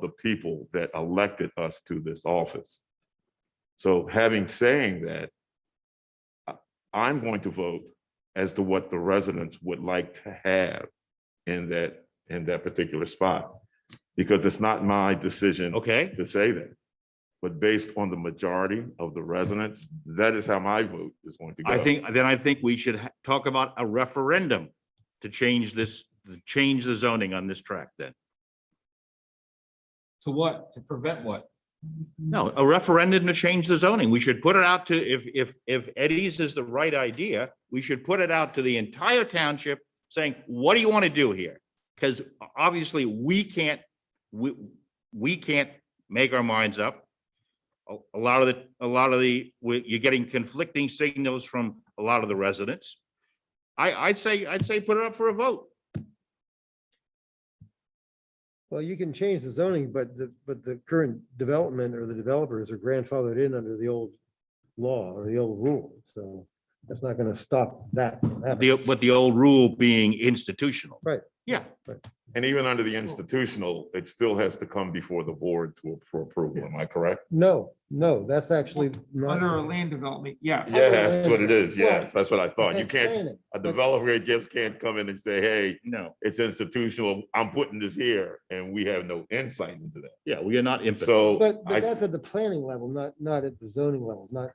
the people that elected us to this office. So having saying that, I- I'm going to vote as to what the residents would like to have in that, in that particular spot. Because it's not my decision Okay, to say that. But based on the majority of the residents, that is how my vote is going to go. I think, then I think we should ha- talk about a referendum to change this, to change the zoning on this track then. To what? To prevent what? No, a referendum to change the zoning. We should put it out to, if, if, if Eddie's is the right idea, we should put it out to the entire township saying, what do you want to do here? Because obviously we can't, we, we can't make our minds up. A, a lot of the, a lot of the, we- you're getting conflicting signals from a lot of the residents. I, I'd say, I'd say put it up for a vote. Well, you can change the zoning, but the, but the current development or the developers are grandfathered in under the old law or the old rule, so that's not gonna stop that. from happening. The, but the old rule being institutional. Right. Yeah, And even under the institutional, it still has to come before the board to, for approval, am I correct? No, no, that's actually Under a not. land development, yes. Yeah, that's what it is. Yes, that's what I thought. You That's can't, planning. a developer just can't come in and say, hey, no, it's institutional, I'm putting this here, and we have no insight into that. yeah, we are not impotent. So, But, I- but that's at the planning level, not, not at the zoning level, not,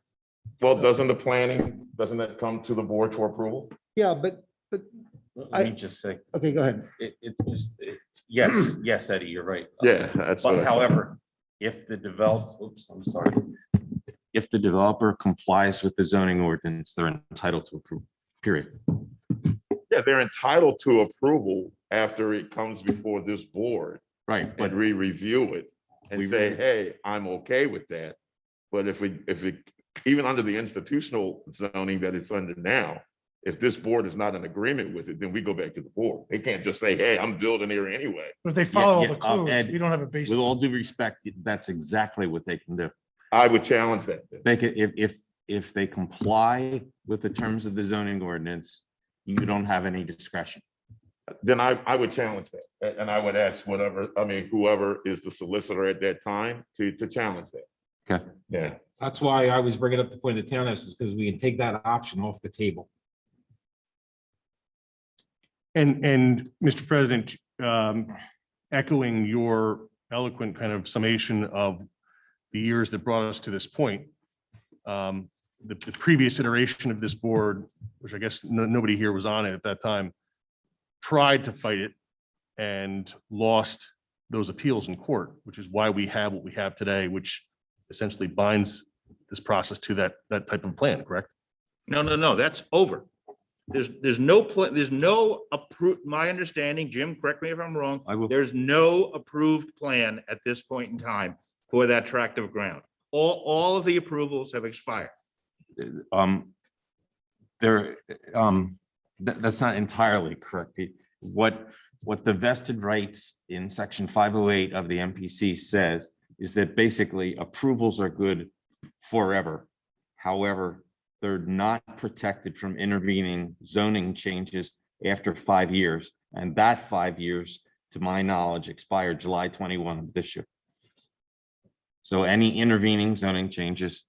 well, doesn't the planning, doesn't that come to the board for approval? yeah, but, Let me just say, okay, go ahead. it, it just, it- yes, yes, Eddie, you're right. that's. But however, if the develop, oops, I'm sorry. If the developer complies with the zoning ordinance, they're entitled to approve, period. Yeah, they're entitled to approval after it comes before this board Right, but and re-review it and We say, re- hey, I'm okay with that. But if we, if it, even under the institutional zoning that it's under now, if this board is not in agreement with it, then we go back to the board. They can't just say, hey, I'm building here anyway. But if they follow all yeah, the um, codes, and we don't have a basis. with all due respect, that's exactly what they can do. I would challenge that. then. They could, if, if, if they comply with the terms of the zoning ordinance, you don't have any discretion. Then I, I would challenge that. A- And I would ask whatever, I mean, whoever is the solicitor at that time to, to challenge that. Okay. Yeah, That's why I was bringing up the point of townhouse is because we can take that option off the table. And, and Mr. President, um, echoing your eloquent kind of summation of the years that brought us to this point, um, the, the previous iteration of this board, which I guess no, nobody here was on it at that time, tried to fight it and lost those appeals in court, which is why we have what we have today, which essentially binds this process to that, that type of plan, correct? No, no, no, that's over. There's, there's no, pla- there's no approved, my understanding, Jim, correct me if I'm wrong, I will. there's no approved plan at this point in time for that tract of ground. All, all of the approvals have expired. um, there, um, that, that's not entirely correct. Pete. What, what the vested rights in section five oh eight of the MPC says is that basically approvals are good forever. However, they're not protected from intervening zoning changes after five years. And that five years, to my knowledge, expired July twenty-one of this year. So any intervening zoning changes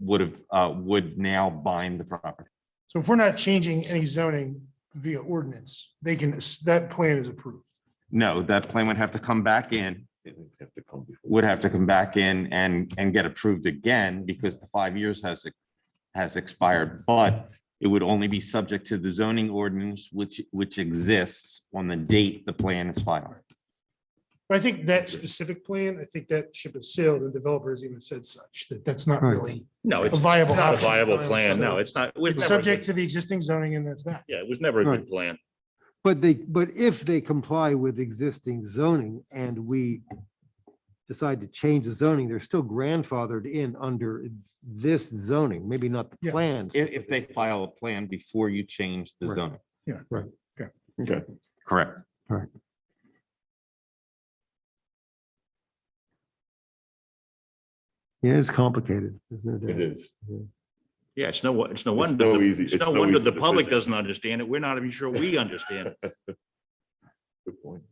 would have, uh, would now bind the property. So if we're not changing any zoning via ordinance, they can, that plan is approved. No, that plan would have to come back in, it would have to come before. would have to come back in and, and get approved again because the five years has, has expired. But it would only be subject to the zoning ordinance, which, which exists on the date the plan is filed. But I think that specific plan, I think that ship has sailed and developers even said such, that that's not really No, a it's viable not a option. viable plan. No, it's not. it was It's never a subject good- to the existing zoning and that's that. Yeah, it was never a good plan. But they, but if they comply with existing zoning and we decide to change the zoning, they're still grandfathered in under this zoning, maybe not the Yeah. plan. If, if they file a plan before you change the Right. zoning. Yeah, right, okay. Okay. Correct. Yeah, it's complicated. There's no doubt. It is. Yeah, it's no, wo- it's no It's wonder, no the- easy- it's it's no no wonder easy the public decision. doesn't understand it. We're not even sure we understand. it. Good point.